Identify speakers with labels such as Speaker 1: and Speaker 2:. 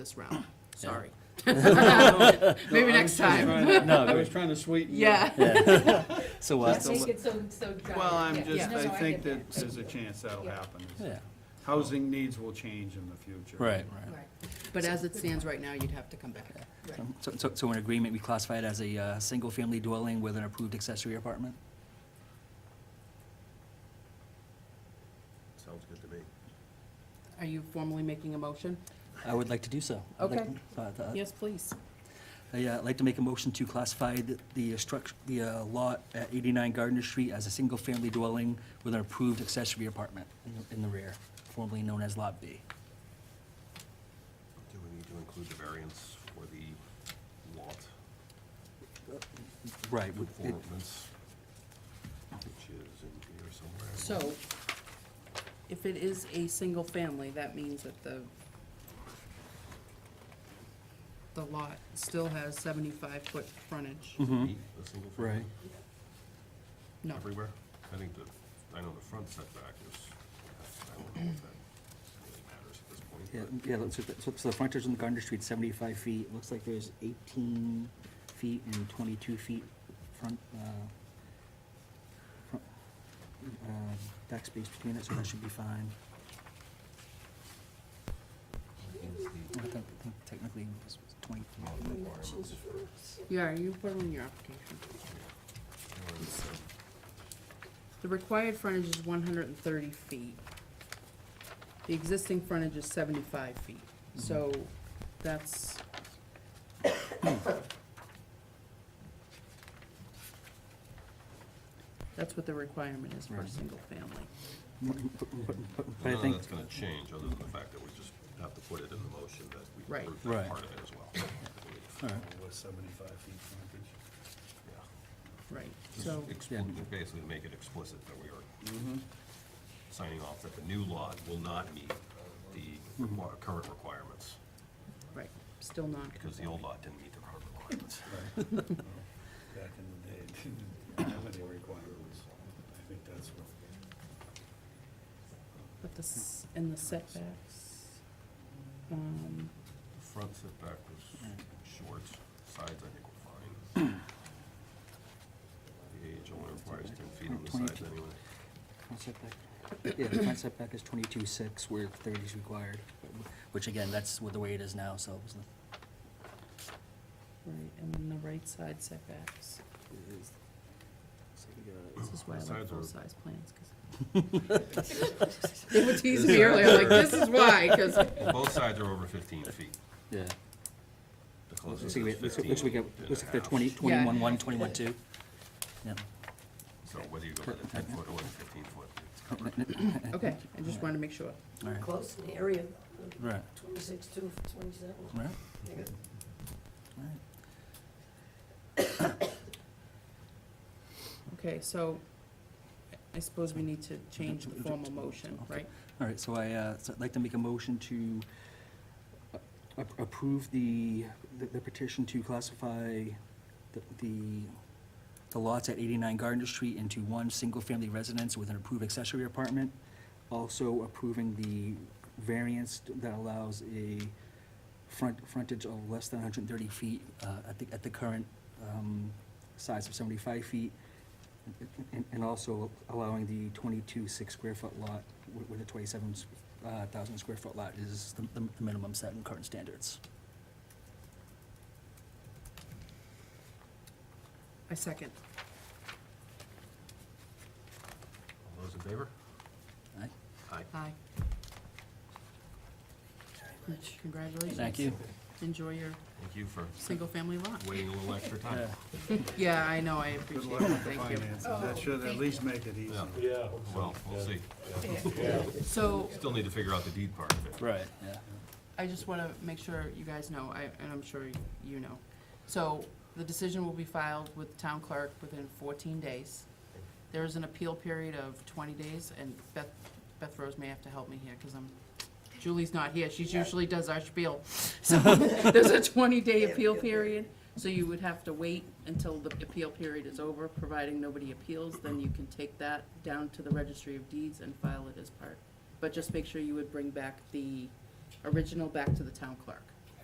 Speaker 1: this round. Sorry. Maybe next time.
Speaker 2: No,
Speaker 3: I
Speaker 2: go
Speaker 3: was trying to sweeten. the-
Speaker 1: Yeah.
Speaker 2: ahead. So, uh,
Speaker 3: That's a
Speaker 4: Make it so, so dry.
Speaker 3: Well, I'm
Speaker 4: Yeah.
Speaker 3: just,
Speaker 4: No,
Speaker 3: I
Speaker 4: no,
Speaker 3: think
Speaker 4: get
Speaker 3: that there's a chance that'll
Speaker 4: Yeah.
Speaker 3: happen.
Speaker 2: yeah,
Speaker 3: Housing needs will change in the future.
Speaker 2: right,
Speaker 4: that.
Speaker 2: right.
Speaker 4: Right,
Speaker 1: But as it stands right now, you'd have to come back.
Speaker 4: right.
Speaker 2: So, so, so in agreement, we classify it as a, uh, single-family dwelling with an approved accessory apartment?
Speaker 5: Sounds good to me.
Speaker 1: Are you formally making a motion?
Speaker 2: I would like to do so. I'd like-
Speaker 1: Okay.
Speaker 2: uh, uh,
Speaker 1: Yes, please.
Speaker 2: I, uh, like to make a motion to classify the, the struct, the, uh, lot at eighty-nine Gardner Street as a single-family dwelling with an approved accessory apartment in the- in the rear, formerly known as Lot B.
Speaker 5: Do we need to include the variance for the lot
Speaker 2: Right, with it-
Speaker 5: performance? Which is in here somewhere.
Speaker 1: So if it is a single family, that means that the the lot still has seventy-five foot frontage.
Speaker 2: Mm-hmm.
Speaker 5: Eight, a single family?
Speaker 2: Right.
Speaker 1: No,
Speaker 5: Everywhere? I think the, I know the front setback is, I don't know if that really matters at this point.
Speaker 2: Yeah,
Speaker 5: but-
Speaker 2: yeah, so, the- so- so the frontage on Gardner Street, seventy-five feet, It looks like there's eighteen feet and twenty-two feet front, uh, front, uh, back space between it, so that should be fine.
Speaker 5: I think the
Speaker 2: I think- I think Technically, it's twenty.
Speaker 5: lot requirements for-
Speaker 1: yeah, you put in your application.
Speaker 5: or is it-
Speaker 1: The required frontage is one hundred and thirty feet. The existing frontage is seventy-five feet, so that's. That's what the requirement is for a
Speaker 2: Right.
Speaker 1: single family.
Speaker 2: But- but- but-
Speaker 5: None
Speaker 2: But I
Speaker 5: of
Speaker 2: think,
Speaker 5: that's gonna change, other than the fact that we just have to put it in the motion that we
Speaker 1: Right.
Speaker 5: approve
Speaker 2: Right.
Speaker 5: that part of it as well. I believe.
Speaker 2: all right,
Speaker 3: With seventy-five feet frontage.
Speaker 5: Yeah.
Speaker 1: Right,
Speaker 5: Just
Speaker 1: so,
Speaker 5: expli- Basically make it explicit that we are
Speaker 2: Mm-hmm.
Speaker 5: signing off that the new lot will not meet the
Speaker 2: Mm-hmm.
Speaker 5: requir- current requirements,
Speaker 1: right, still not.
Speaker 5: because the old lot didn't meet the current requirements.
Speaker 3: Back in the day, it didn't have any requirements. I think that's what.
Speaker 1: But the, s- and the setbacks, um,
Speaker 5: The Front setback was short, sides I think were fine. The age only requires ten feet on the sides
Speaker 2: 22.
Speaker 5: anyway.
Speaker 2: front setback, yeah, the front setback is twenty-two six where thirty is required, which again, that's what the way it is now, so it's not-
Speaker 1: right, and then the right side setbacks.
Speaker 2: it is. uh, So we got-
Speaker 1: This is why I
Speaker 5: The
Speaker 1: like
Speaker 5: sides are-
Speaker 1: full-size plans, 'cause- They were teasing me earlier, I'm like, this is why, 'cause
Speaker 5: Well, both sides are over fifteen feet.
Speaker 2: Yeah.
Speaker 5: The
Speaker 2: Looks
Speaker 5: closest
Speaker 2: looks
Speaker 5: is
Speaker 2: like, we- looks
Speaker 5: 15
Speaker 2: looks like, we
Speaker 5: and
Speaker 2: got-
Speaker 5: a
Speaker 2: looks like they're
Speaker 5: half.
Speaker 2: twenty,
Speaker 1: Yeah.
Speaker 2: twenty-one one, twenty-one two. Yeah.
Speaker 5: So whether you go with a ten foot or the fifteen foot, it's covered.
Speaker 1: okay, I just wanted to make sure.
Speaker 2: All right.
Speaker 6: Close in the area,
Speaker 2: Right,
Speaker 6: twenty-six, two, twenty-seven.
Speaker 2: right,
Speaker 6: They got
Speaker 2: right.
Speaker 1: Okay, so I suppose we need to change the formal motion, right?
Speaker 2: All right, so I, uh, so I'd like to make a motion to a- a- approve the, the- the petition to classify the- the, the lots at 89 Gardner Street into one single-family residence with an approved accessory apartment, also approving the variance that allows a front, frontage of less than 130 feet uh, at the, at the current um, size of 75 feet, and- And also allowing the 22-six square foot lot wi- with a 27,000 square foot lot is the the minimum set in current standards.
Speaker 1: I second.
Speaker 5: All those in favor?
Speaker 2: Aye.
Speaker 5: Aye.
Speaker 1: Aye. Congratulations.
Speaker 2: Thank you.
Speaker 1: Enjoy your
Speaker 5: Thank you for
Speaker 1: single-family lot.
Speaker 5: waiting a little extra time.
Speaker 1: Yeah, I know, I
Speaker 3: Good
Speaker 1: appreciate
Speaker 3: luck
Speaker 1: it,
Speaker 3: with the
Speaker 1: thank you.
Speaker 3: finances. That should at least make it easy.
Speaker 5: Yeah,
Speaker 7: Yeah.
Speaker 5: well, we'll see.
Speaker 1: So
Speaker 5: Still need to figure out the deed part of it.
Speaker 2: Right. Yeah.
Speaker 1: I just want to make sure you guys know, I- and I'm sure you know. So the decision will be filed with the town clerk within 14 days. There is an appeal period of 20 days, and Beth, Beth Rose may have to help me here, because I'm, Julie's not here, she usually does our spiel. So there's a 20-day appeal period, so you would have to wait until the appeal period is over, providing nobody appeals, then you can take that down to the registry of deeds and file it as part. But just make sure you would bring back the original back to the town clerk.